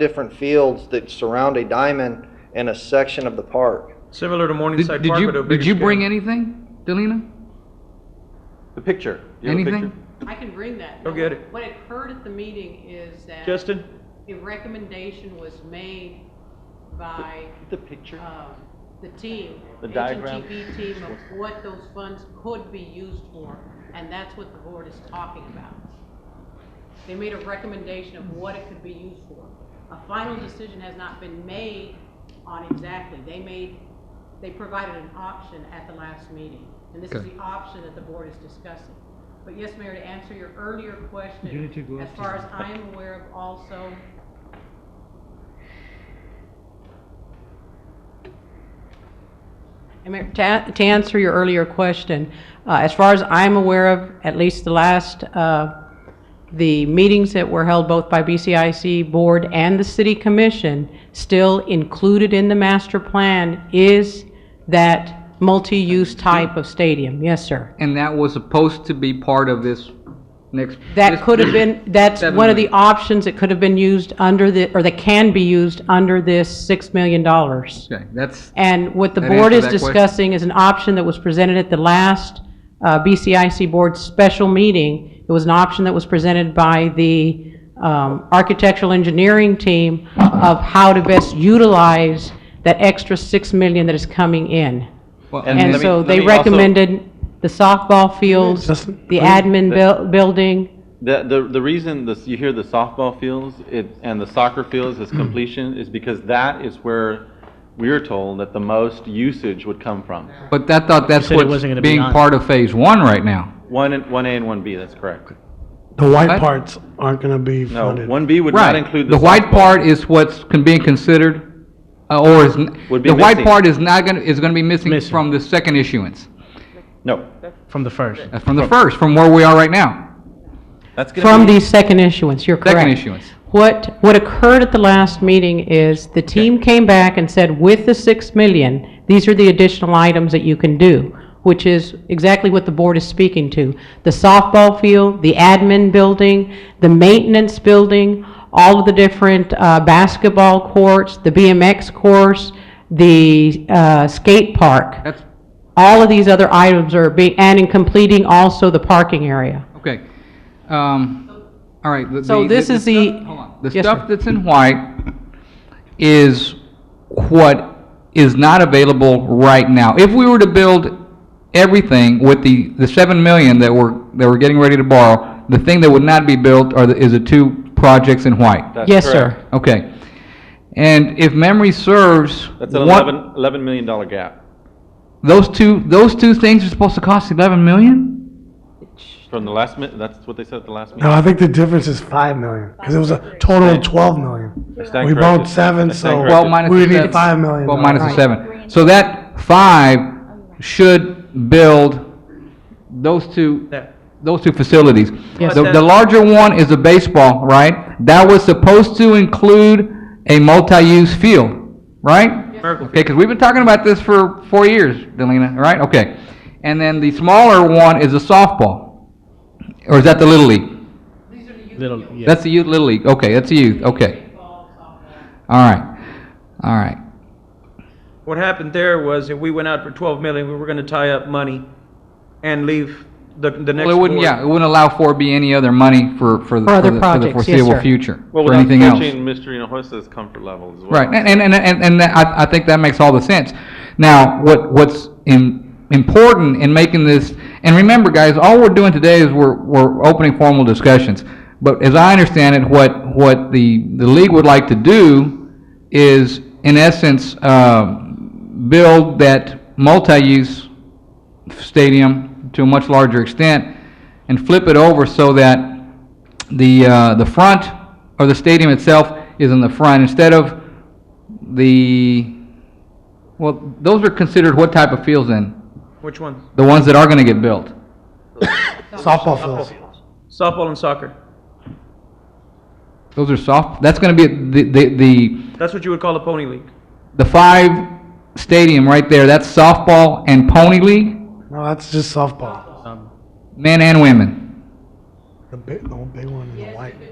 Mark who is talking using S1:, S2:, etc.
S1: different fields that surround a diamond in a section of the park.
S2: Similar to
S3: Did,
S2: Morningside
S3: did
S2: Park, but a
S3: you,
S2: bigger
S3: did you bring
S2: scale.
S3: anything, Delina?
S4: The picture. You have a
S3: Anything?
S4: picture?
S5: I can bring that.
S2: Go get it.
S5: What I heard at the meeting is that.
S2: Justin?
S5: The recommendation was made by,
S4: The picture.
S5: um, the team.
S4: The diagram?
S5: HNTB team of what those funds could be used for, and that's what the board is talking about. They made a recommendation of what it could be used for. A final decision has not been made on exactly, they made, they provided an option at the last meeting. And this is
S3: Okay.
S5: the option that the board is discussing. But yes, Mayor, to answer your earlier
S6: You need to
S5: question,
S6: go
S5: as
S6: up to
S5: far as
S6: the-
S5: I am aware of also, And Mayor, To an- to answer your earlier question, uh, as far as I'm aware of, at least the last, uh, the meetings that were held both by BCIC Board and the City Commission, still included in the master plan is that multi-use type of stadium. Yes, sir.
S3: And that was supposed to be part of this next.
S5: That
S3: this-
S5: could have been, that's
S3: Seven
S5: one of the
S3: million.
S5: options that could have been used under the, or that can be used under this $6 million.
S3: Okay, that's,
S5: And what the
S3: That
S5: board is
S3: answer that question?
S5: discussing is an option that was presented at the last uh, BCIC Board special meeting. It was an option that was presented by the um, architectural engineering team of how to best utilize that extra 6 million that is coming in.
S3: well,
S4: And
S5: And
S4: let me-
S5: so
S4: let
S5: they
S4: me also-
S5: recommended the softball fields,
S6: Justin,
S5: the
S6: let me-
S5: admin buil- building.
S4: The, the, the reason this, you hear the softball fields it, and the soccer fields
S6: Hmm.
S4: as completion is because that is where we are told that the most usage would come from.
S3: But that thought that's
S6: said it
S3: what's
S6: wasn't gonna be
S3: being
S6: on.
S3: part of phase one right now.
S4: One, and- one A and one B, that's correct.
S6: The white
S3: What?
S6: parts aren't going to be
S4: No,
S6: funded.
S4: one B would not
S3: Right.
S4: include the
S3: The white
S4: softball.
S3: part is what's con- being considered, uh, or is, n-
S4: Would be
S3: the white
S4: missing.
S3: part is not gonna, is gonna be missing
S6: Missing.
S3: from the second issuance,
S4: No,
S6: from the first.
S3: uh, from the first, from where we are right now.
S4: that's gonna
S5: From
S4: be-
S5: the second issuance, you're correct.
S3: Second issuance.
S5: What, what occurred at the last meeting is the team came back and said, with the 6 million, these are the additional items that you can do, which is exactly what the board is speaking to. The softball field, the admin building, the maintenance building, all of the different uh, basketball courts, the BMX course, the uh, skate park.
S3: That's,
S5: All of these other items are being, and in completing also the parking area.
S3: okay. Um, all right. the-
S5: So
S3: the-
S5: this
S3: the-
S5: is the.
S3: Hold on. The
S5: Yes,
S3: stuff
S5: sir.
S3: that's in white is what is not available right now. If we were to build everything with the, the seven million that we're, that we're getting ready to borrow, the thing that would not be built are the, is the two projects in white.
S4: That's
S5: Yes, sir.
S4: correct.
S3: Okay. And if memory serves,
S4: That's an
S3: what-
S4: 11 $11 million dollar gap
S3: Those two, those two things are supposed to cost eleven million?
S4: from the last minute, that's what they said at the last
S6: No,
S4: meeting.
S6: I think the difference is five million because it was a total of twelve million.
S4: I stand
S6: We
S4: corrected.
S6: borrowed seven,
S4: I stand
S6: so
S4: corrected.
S3: Twelve minus
S6: we
S3: the
S6: would need
S3: seven.
S6: five million
S3: Twelve minus the
S6: dollars.
S3: seven. So that five should build those two
S2: That-
S3: those two facilities.
S5: Yes.
S3: The, the larger one is the baseball, right? That was supposed to include a multi-use field, right?
S2: Miracle
S3: Okay, because we've been talking about this for four years, Delina, right? Okay. And then the smaller one is the softball. Or is that the Little League?
S6: Little, yeah.
S3: That's the youth, Little League. Okay, that's the youth, okay. All right, all right.
S2: What happened there was if we went out for 12 million, we were going to tie up money and leave the, the next
S3: Well, it wouldn't,
S2: board.
S3: yeah, it wouldn't allow 4B any other money for, for the
S5: For other
S3: for the- for the
S5: projects, yes,
S3: foreseeable
S5: sir.
S3: future,
S4: Well,
S3: for
S4: without
S3: anything else.
S4: touching Mr. Hinojosa's comfort level as well.
S3: Right, and, and, and, and, and that- I, I think that makes all the sense. Now, what, what's in, important in making this, and remember, guys, all we're doing today is we're, we're opening formal discussions. But as I understand it, what, what the, the league would like to do is, in essence, um, build that multi-use stadium to a much larger extent and flip it over so that the, uh, the front or the stadium itself is in the front instead of the, well, those are considered what type of fields then?
S2: Which one?
S3: The ones that are going to get built?
S6: Softball fields.
S2: Softball and soccer.
S3: Those are soft, that's going to be the, the, the,
S2: That's what you would call a pony league.
S3: the five stadium right there, that's softball and pony league,
S6: No, that's just softball.
S3: men and women.
S6: The big, the big one in the white.